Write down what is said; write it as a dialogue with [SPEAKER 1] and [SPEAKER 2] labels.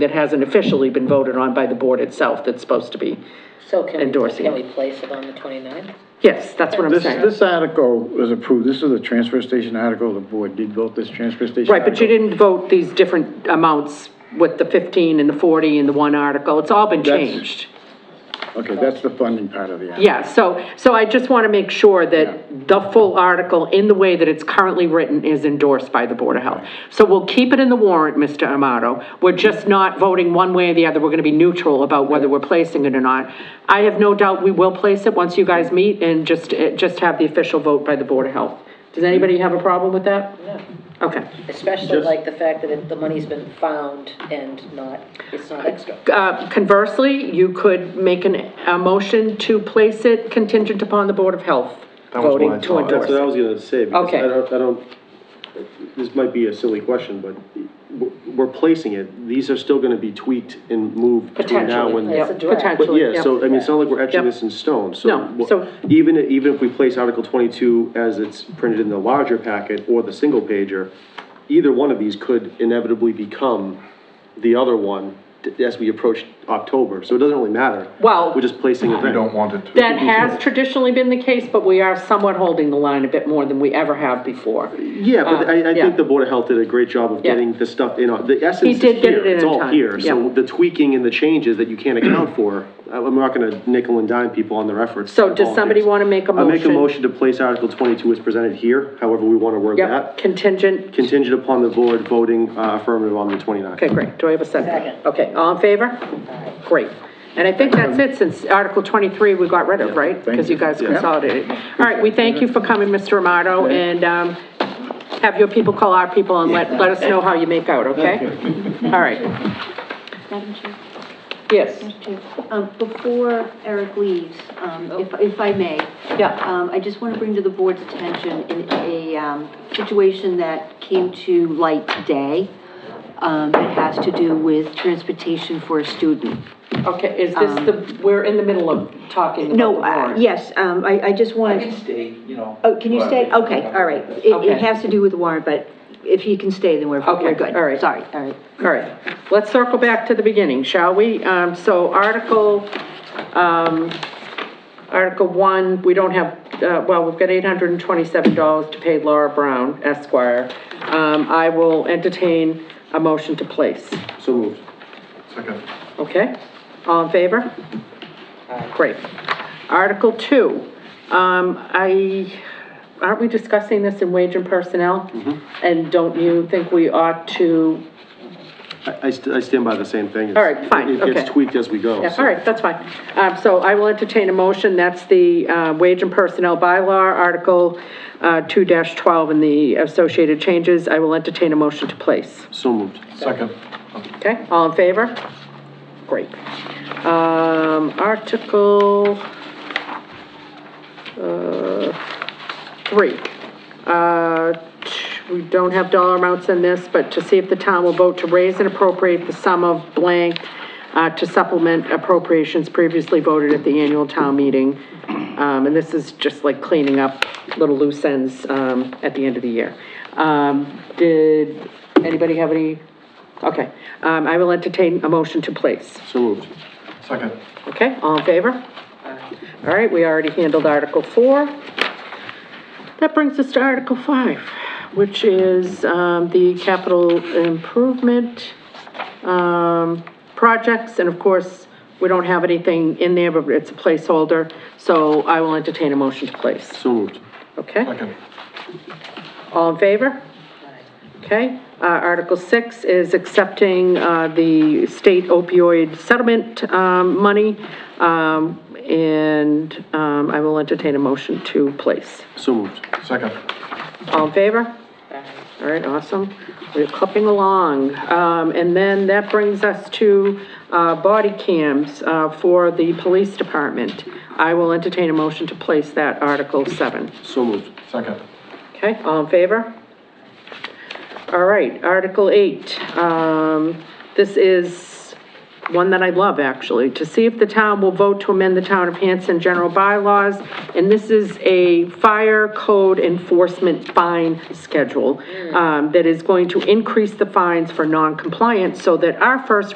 [SPEAKER 1] that hasn't officially been voted on by the board itself that's supposed to be.
[SPEAKER 2] So can we,
[SPEAKER 1] Endorsing
[SPEAKER 2] can we
[SPEAKER 1] it.
[SPEAKER 2] place it on the 29th?
[SPEAKER 1] Yes, that's what I'm
[SPEAKER 3] This,
[SPEAKER 1] saying.
[SPEAKER 3] this article was approved, this is a transfer station article, the board did vote this transfer station
[SPEAKER 1] Right, but you
[SPEAKER 3] article.
[SPEAKER 1] didn't vote these different amounts with the 15 and the 40 and the one article. It's all been
[SPEAKER 3] That's-
[SPEAKER 1] changed.
[SPEAKER 3] Okay, that's the funding part of the article.
[SPEAKER 1] Yeah, so, so I just want to make sure that the full article, in the way that it's currently written, is endorsed by the Board of Health. So we'll keep it in the warrant, Mr. Amato. We're just not voting one way or the other. We're going to be neutral about whether we're placing it or not. I have no doubt we will place it once you guys meet and just, eh, just have the official vote by the Board of Health. Does anybody have a problem with that?
[SPEAKER 2] No.
[SPEAKER 1] Okay.
[SPEAKER 2] Especially like the fact that it- the money's been found and not, it's not extra.
[SPEAKER 1] Uh, Conversely, you could make an, a motion to place it contingent upon the Board of Health
[SPEAKER 4] That was what I
[SPEAKER 1] voting to
[SPEAKER 4] thought.
[SPEAKER 1] endorse
[SPEAKER 5] That's what I
[SPEAKER 1] it.
[SPEAKER 5] was gonna say, because
[SPEAKER 1] Okay.
[SPEAKER 5] I don't, I don't, this might be a silly question, but w- we're placing it, these are still gonna be tweaked and moved between now
[SPEAKER 1] Potentially,
[SPEAKER 5] and.
[SPEAKER 1] yeah,
[SPEAKER 2] It's a draft.
[SPEAKER 1] potentially.
[SPEAKER 5] But yeah,
[SPEAKER 1] yep.
[SPEAKER 5] so, I mean, it's not like we're etching
[SPEAKER 1] Yep.
[SPEAKER 5] this in stone, so.
[SPEAKER 1] No,
[SPEAKER 5] wha-
[SPEAKER 1] so-
[SPEAKER 5] Even, even if we place Article twenty-two as it's printed in the larger packet or the single pager, either one of these could inevitably become the other one t- as we approach October, so it doesn't really matter.
[SPEAKER 1] Well-
[SPEAKER 5] We're just placing it
[SPEAKER 4] We
[SPEAKER 5] there.
[SPEAKER 4] don't want it to.
[SPEAKER 1] That has traditionally been the case, but we are somewhat holding the line a bit more than we ever have before.
[SPEAKER 5] Yeah, but
[SPEAKER 1] Uh,
[SPEAKER 5] I, I
[SPEAKER 1] yeah.
[SPEAKER 5] think the Board of Health did a great job of
[SPEAKER 1] Yeah.
[SPEAKER 5] getting the stuff in, on- the essence is
[SPEAKER 1] did get it
[SPEAKER 5] here,
[SPEAKER 1] in
[SPEAKER 5] it's
[SPEAKER 1] in
[SPEAKER 5] all
[SPEAKER 1] time,
[SPEAKER 5] here.
[SPEAKER 1] yeah.
[SPEAKER 5] So the tweaking and the changes that you can't account for, I- I'm not gonna nickel and dime people on their efforts.
[SPEAKER 1] So does
[SPEAKER 5] Volunteers.
[SPEAKER 1] somebody wanna make a
[SPEAKER 5] I make a
[SPEAKER 1] motion?
[SPEAKER 5] motion to place Article twenty-two as presented here, however we wanna word
[SPEAKER 1] Yep,
[SPEAKER 5] that.
[SPEAKER 1] contingent,
[SPEAKER 5] Contingent upon the board voting uh, affirmative on the 29th.
[SPEAKER 1] okay, great, do I have a second?
[SPEAKER 2] Second.
[SPEAKER 1] Okay, all in favor? Great, and I think that's it, since Article twenty-three we got rid of, right? Because you guys consolidated. All right, we thank you for coming, Mr. Amato, and, um, have your people call our people and let, let us know how you make out, okay? All right,
[SPEAKER 6] Madam Chair,
[SPEAKER 1] yes,
[SPEAKER 6] Madam Chair, um, before Eric leaves, um, if, if I may.
[SPEAKER 1] Oh. yeah,
[SPEAKER 6] Um, I just want to bring to the board's attention in a, um, situation that came to light today. Um, it has to do with transportation for a student.
[SPEAKER 1] okay, is this the, we're in the middle of talking about the
[SPEAKER 6] No, uh,
[SPEAKER 1] warrant.
[SPEAKER 6] yes, um, I, I just
[SPEAKER 7] I
[SPEAKER 6] wanted.
[SPEAKER 7] can stay, you know.
[SPEAKER 6] Oh, can you
[SPEAKER 7] but-
[SPEAKER 6] stay? Okay, all right. It,
[SPEAKER 1] Okay.
[SPEAKER 6] it has to do with the warrant, but if you can stay, then we're,
[SPEAKER 1] Okay,
[SPEAKER 6] we're good.
[SPEAKER 1] all right.
[SPEAKER 6] Sorry, all right.
[SPEAKER 1] All right, let's circle back to the beginning, shall we? Um, so Article, um, Article one, we don't have, uh, well, we've got eight hundred and twenty-seven dollars to pay Laura Brown Esquire. Um, I will entertain a motion to place,
[SPEAKER 5] So moved.
[SPEAKER 4] Second.
[SPEAKER 1] okay? All in favor? Great. Article two, um, I, aren't we discussing this in wage and personnel? And don't you think we ought to
[SPEAKER 5] I, I st- I stand by the same thing. It's-
[SPEAKER 1] All right, fine,
[SPEAKER 5] It
[SPEAKER 1] okay.
[SPEAKER 5] gets tweaked as we go.
[SPEAKER 1] Yeah,
[SPEAKER 5] so-
[SPEAKER 1] all right, that's fine. Um, so I will entertain a motion, that's the, uh, wage and personnel bylaw, Article, uh, two twelve and the associated changes. I will entertain a motion to place,
[SPEAKER 5] So moved.
[SPEAKER 4] Second.
[SPEAKER 1] okay? All in favor? Great. Um, Article, uh, three. Uh, t- we don't have dollar amounts in this, but to see if the town will vote to raise and appropriate the sum of blank uh, to supplement appropriations previously voted at the annual town meeting. Um, and this is just like cleaning up little loose ends, um, at the end of the year. Um, did anybody have any? Okay, um, I will entertain a motion to place.
[SPEAKER 5] So moved.
[SPEAKER 4] Second.
[SPEAKER 1] Okay, all in favor? All right, we already handled Article 4. That brings us to Article 5, which is um, the capital improvement um, projects. And of course, we don't have anything in there, but it's a placeholder, so I will entertain a motion to place.
[SPEAKER 5] So moved.
[SPEAKER 1] Okay,
[SPEAKER 4] Second.
[SPEAKER 1] all in favor? Okay, uh, Article 6 is accepting, uh, the state opioid settlement, um, money. Um, and, um, I will entertain a motion to place.
[SPEAKER 5] So moved.
[SPEAKER 4] Second.
[SPEAKER 1] All in favor? All right, awesome. We're clipping along. Um, and then that brings us to, uh, body cams, uh, for the police department. I will entertain a motion to place that Article 7.
[SPEAKER 5] So moved.
[SPEAKER 4] Second.
[SPEAKER 1] Okay, all in favor? All right, Article 8. Um, This is one that I love, actually. To see if the town will vote to amend the town of Hanson general bylaws. And this is a fire code enforcement fine schedule um, that is going to increase the fines for non-compliance so that our first